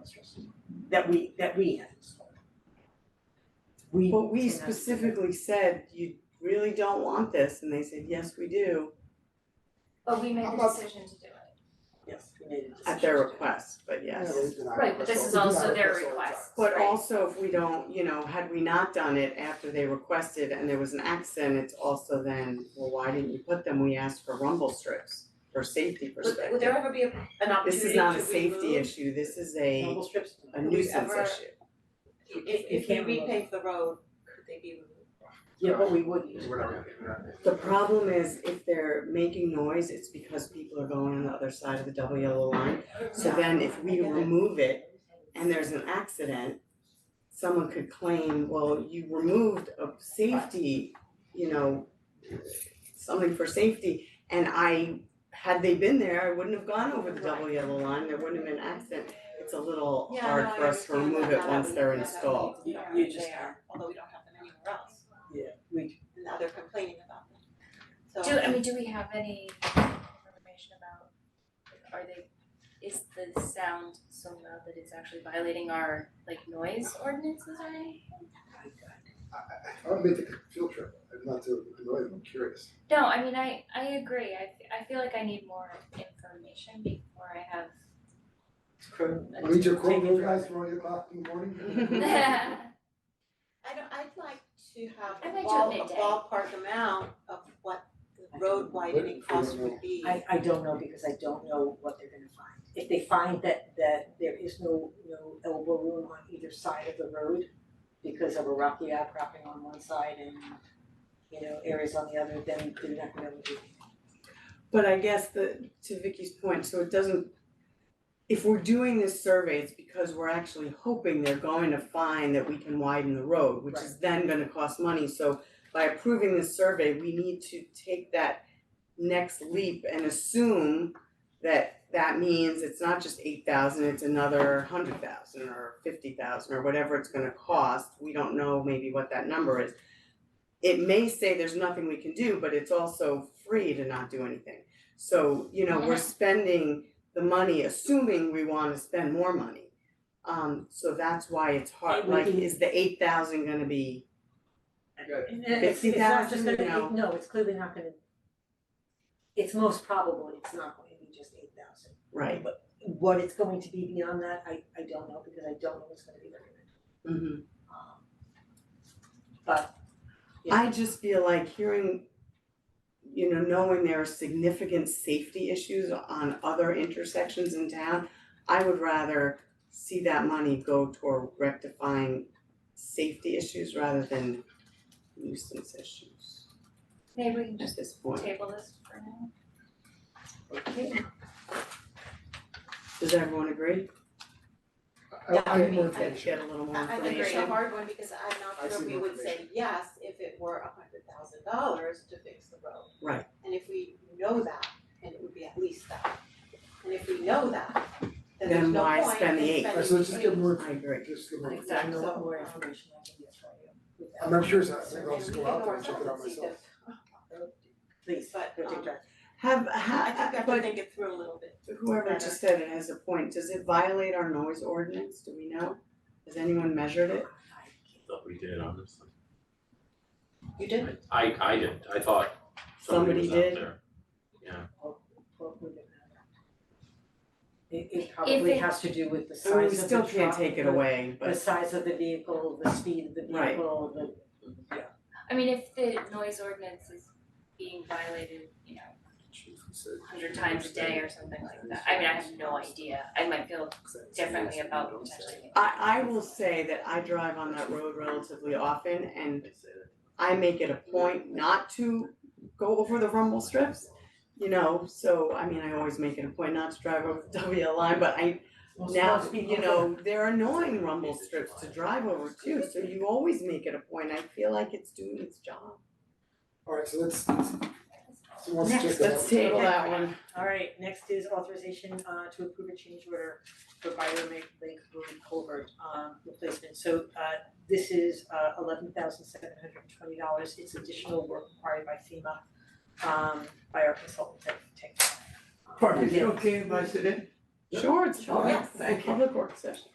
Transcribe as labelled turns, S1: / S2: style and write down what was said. S1: districts.
S2: that we, that we have installed. We.
S3: Well, we
S2: cannot-
S3: specifically said, you really don't want this, and they said, yes, we do,
S4: But we made the
S1: About-
S4: decision to do it.
S2: Yes, we made a decision.
S3: at their
S2: to do it.
S3: request, but yes.
S1: Yeah, they deny
S4: Right, but this
S1: requests
S4: is
S1: all- we
S4: also
S1: deny
S4: their
S1: requests all the time.
S4: request.
S3: But
S4: Right.
S3: also if we don't, you know, had we not done it after they requested and there was an accident, it's also then, well, why didn't you put them? We asked for rumble strips for safety
S4: Would, would
S3: perspective.
S4: there ever be a- an
S3: This
S4: opportunity
S3: is
S4: to
S3: not
S4: remove?
S3: a safety issue, this is a
S2: Rumble strips.
S3: a
S2: we've
S3: nuisance
S2: ever-
S3: issue.
S2: If- if we repave
S5: the road, could they be removed?
S2: Yeah, but we would use.
S1: We're not gonna do that.
S3: The problem is if they're making noise, it's because people are going on the other side of the double yellow line. So then if we remove it and there's an accident, someone could claim, well, you removed a safety, you know, something for safety. And I, had they been there, I wouldn't have gone over the double yellow line, there wouldn't have been an accident. It's a little
S5: Yeah, no,
S3: hard
S5: I
S3: for us to
S5: understand
S3: remove
S5: that,
S3: it
S5: that
S3: once
S5: would-
S3: they're
S5: that would
S3: installed.
S5: be
S2: You-
S5: there,
S2: you just-
S5: there, Although we don't have them anywhere else,
S2: Yeah, we,
S5: and now they're complaining about them, so.
S4: Do, I mean, do we have any information about, are they, is the sound so loud that it's actually violating our like noise ordinances or anything?
S1: I I I would make the field trip, I'm not to annoy them, I'm curious.
S4: No, I mean, I, I agree. I, f- I feel like I need more information before I have.
S2: it's cruel.
S1: I need your
S2: Take
S1: quote,
S2: it
S1: those
S2: for-
S1: guys from eight o'clock in the morning.
S4: I
S5: I don't, I'd like to have
S4: I'd
S5: a
S4: like to
S5: ball,
S4: have
S5: a
S4: midday.
S5: ballpark amount of what the road widening cost would be.
S2: I I don't know because I don't know what they're gonna find. If they find that that there is no no elbow room on either side of the road because of a rocky outcropping on one side and you know, areas on the other, then they're not gonna be able to do anything.
S3: But I guess the, to Vicky's point, so it doesn't, if we're doing this survey, it's because we're actually hoping they're going to find that we can widen the road, which is then gonna cost money, so by approving this survey, we need to take that next leap and assume that that means it's not just eight thousand, it's another hundred thousand or fifty thousand or whatever it's gonna cost, we don't know maybe what that number is. It may say there's nothing we can do, but it's also free to not do anything. So, you know, we're spending the money assuming we wanna spend more money. Um, so that's why it's hard,
S2: And we
S3: like,
S2: can-
S3: is the eight thousand gonna be,
S1: Good.
S2: And then it's it's not just
S3: 50,000,
S2: gonna,
S3: no.
S2: it- no, it's clearly not gonna. It's most probable it's not going to be just eight thousand.
S3: right?
S2: What it's going to be beyond that, I I don't know because I don't know what's gonna be recommended.
S3: Mhm.
S2: Um but Yeah.
S3: I just feel like hearing, you know, knowing there are significant safety issues on other intersections in town, I would rather see that money go toward rectifying safety issues rather than nuisance issues
S4: Maybe we can just
S3: at this point.
S4: table this for now.
S2: okay,
S3: Does everyone agree?
S1: I I need more
S5: Yeah, I mean,
S1: information.
S3: Get a little more
S5: I I think it's a
S3: information.
S5: hard one because I'm
S1: I
S5: not
S1: see
S5: sure we
S1: no
S5: would say yes if it were a hundred thousand dollars to fix the road.
S3: Right.
S5: And if we know that, then it would be at least that. And if we know that, then there's
S3: Then
S5: no
S3: why
S5: point in
S3: spend the eight?
S5: spending
S1: Alright, so let's just get more,
S3: I agree.
S1: just get more.
S2: I don't know what more information I can get for you without-
S1: I'm not sure, so I think I'll
S5: And
S1: just
S5: we
S1: go
S5: can
S1: out there
S5: go
S1: and check it out
S5: ourselves and see
S1: myself.
S2: Please,
S5: But,
S2: go take
S5: um,
S2: charge.
S3: Have,
S5: I think we
S3: ha,
S5: have to
S3: but
S5: think it through a little bit.
S3: whoever just said it has a point, does it violate our noise ordinance, do we know? Has anyone measured it?
S6: thought we did, honestly.
S5: You did?
S6: I I did, I thought somebody
S3: Somebody
S6: was out there.
S3: did.
S2: What would it matter? It it probably
S4: it-
S2: has to do with the
S3: I mean,
S2: size
S3: we
S2: of the
S3: still can't
S2: truck,
S3: take it
S2: the-
S3: away,
S2: The
S3: but
S2: size of the vehicle, the speed of the
S3: Right.
S2: vehicle, the,
S4: I mean, if the noise ordinance is being violated, you know, a hundred times a day or something like that, I mean, I have no idea. I might feel differently about potentially.
S3: I, I will say that I drive on that road relatively often and I make it a point not to go over the rumble strips. You know, so I mean, I always make it a point not to drive over the WL line, but I now, you know, they're annoying rumble strips to drive over too, so you always make it a point. I feel like it's doing its job.
S1: Alright, so let's, let's- so once you check
S2: Next,
S1: that out.
S3: Let's table that one.
S2: Alright, next is authorization uh to approve a change order for Byron Lake Lake Road Culvert um replacement. So uh this is uh eleven thousand seven hundred and twenty dollars, it's additional work required by FEMA um by our consultant Tech Tech.
S7: Pardon me, is it okay if I sit in?
S3: Sure, it's fine.
S5: Yes.
S3: Public work session.